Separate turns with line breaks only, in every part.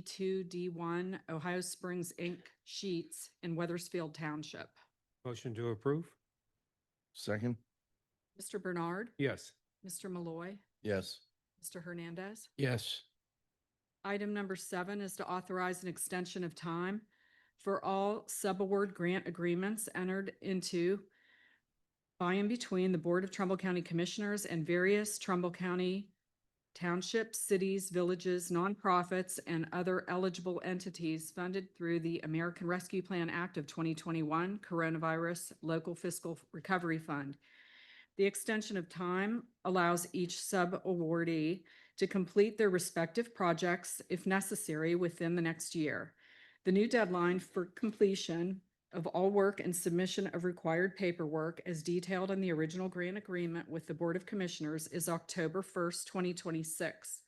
two, D one, Ohio Springs Inc. sheets in Weathersfield Township.
Motion to approve?
Second?
Mr. Bernard,
Yes.
Mr. Malloy,
Yes.
Mr. Hernandez.
Yes.
Item number seven is to authorize an extension of time for all subaward grant agreements entered into by and between the Board of Trumbull County Commissioners and various Trumbull County townships, cities, villages, nonprofits, and other eligible entities funded through the American Rescue Plan Act of 2021 Coronavirus Local Fiscal Recovery Fund. The extension of time allows each sub-awardee to complete their respective projects, if necessary, within the next year. The new deadline for completion of all work and submission of required paperwork as detailed in the original grant agreement with the Board of Commissioners is October first, twenty twenty-six.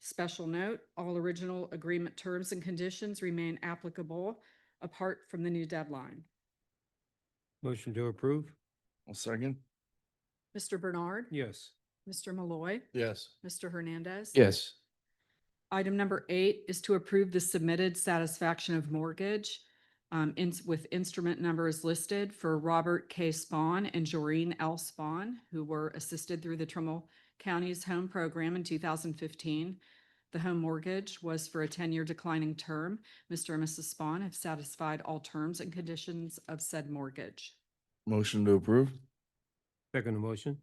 Special note, all original agreement terms and conditions remain applicable apart from the new deadline.
Motion to approve?
I'll second?
Mr. Bernard.
Yes.
Mr. Malloy.
Yes.
Mr. Hernandez.
Yes.
Item number eight is to approve the submitted satisfaction of mortgage um, ins- with instrument numbers listed for Robert K. Spawn and Joreen L. Spawn, who were assisted through the Trumbull County's Home Program in two thousand fifteen. The home mortgage was for a ten-year declining term. Mr. and Mrs. Spawn have satisfied all terms and conditions of said mortgage.
Motion to approve?
Second motion?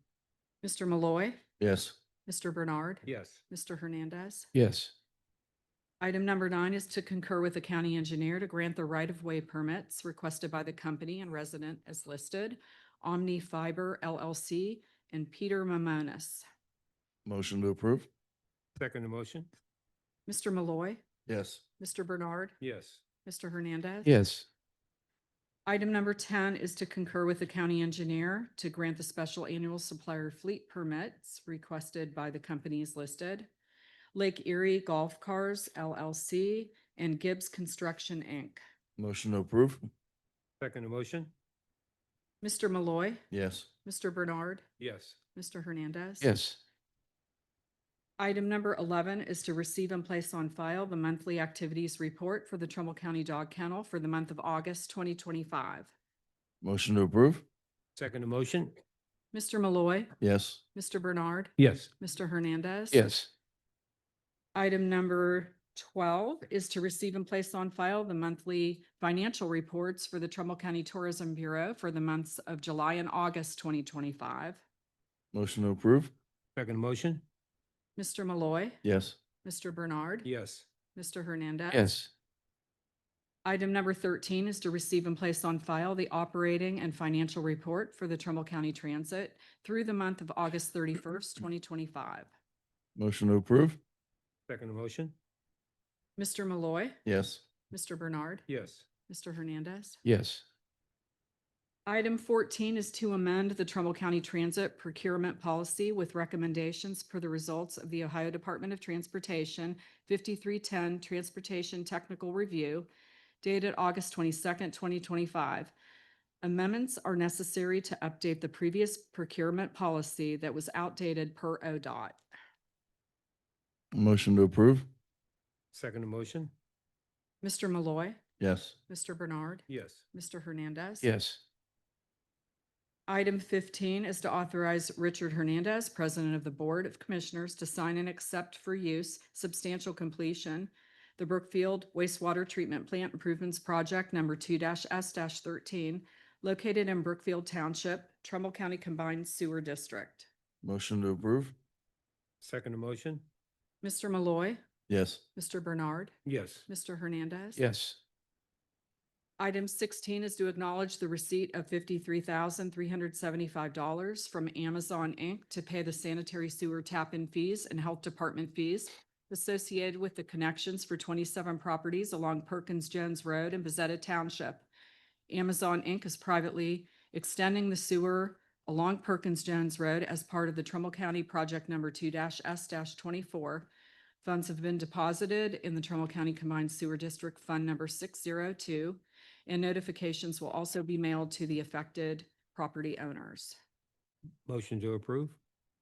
Mr. Malloy,
Yes.
Mr. Bernard,
Yes.
Mr. Hernandez.
Yes.
Item number nine is to concur with the county engineer to grant the right-of-way permits requested by the company and resident as listed, Omni Fiber LLC and Peter Mamonis.
Motion to approve?
Second motion?
Mr. Malloy,
Yes.
Mr. Bernard,
Yes.
Mr. Hernandez.
Yes.
Item number ten is to concur with the county engineer to grant the special annual supplier fleet permits requested by the companies listed, Lake Erie Golf Cars LLC and Gibbs Construction, Inc.
Motion to approve?
Second motion?
Mr. Malloy,
Yes.
Mr. Bernard,
Yes.
Mr. Hernandez.
Yes.
Item number eleven is to receive and place on file the monthly activities report for the Trumbull County Dog Kennel for the month of August twenty twenty-five.
Motion to approve?
Second motion?
Mr. Malloy,
Yes.
Mr. Bernard,
Yes.
Mr. Hernandez.
Yes.
Item number twelve is to receive and place on file the monthly financial reports for the Trumbull County Tourism Bureau for the months of July and August twenty twenty-five.
Motion to approve?
Second motion?
Mr. Malloy,
Yes.
Mr. Bernard,
Yes.
Mr. Hernandez.
Yes.
Item number thirteen is to receive and place on file the operating and financial report for the Trumbull County Transit through the month of August thirty-first, twenty twenty-five.
Motion to approve?
Second motion?
Mr. Malloy,
Yes.
Mr. Bernard,
Yes.
Mr. Hernandez.
Yes.
Item fourteen is to amend the Trumbull County Transit Procurement Policy with recommendations for the results of the Ohio Department of Transportation fifty-three-ten Transportation Technical Review dated August twenty-second, twenty twenty-five. Amendments are necessary to update the previous procurement policy that was outdated per ODOT.
Motion to approve?
Second motion?
Mr. Malloy,
Yes.
Mr. Bernard,
Yes.
Mr. Hernandez.
Yes.
Item fifteen is to authorize Richard Hernandez, President of the Board of Commissioners, to sign and accept for use substantial completion the Brookfield wastewater treatment plant improvements project number two S thirteen located in Brookfield Township, Trumbull County Combined Sewer District.
Motion to approve?
Second motion?
Mr. Malloy,
Yes.
Mr. Bernard,
Yes.
Mr. Hernandez.
Yes.
Item sixteen is to acknowledge the receipt of fifty-three thousand, three hundred seventy-five dollars from Amazon Inc. to pay the sanitary sewer tap-in fees and health department fees associated with the connections for twenty-seven properties along Perkins Jones Road in Bezetta Township. Amazon Inc. is privately extending the sewer along Perkins Jones Road as part of the Trumbull County Project Number two S twenty-four Funds have been deposited in the Trumbull County Combined Sewer District Fund Number 602, and notifications will also be mailed to the affected property owners.
Motion to approve?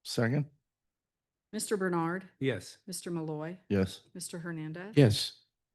Second?
Mr. Bernard,
Yes.
Mr. Malloy,
Yes.
Mr. Hernandez.
Yes.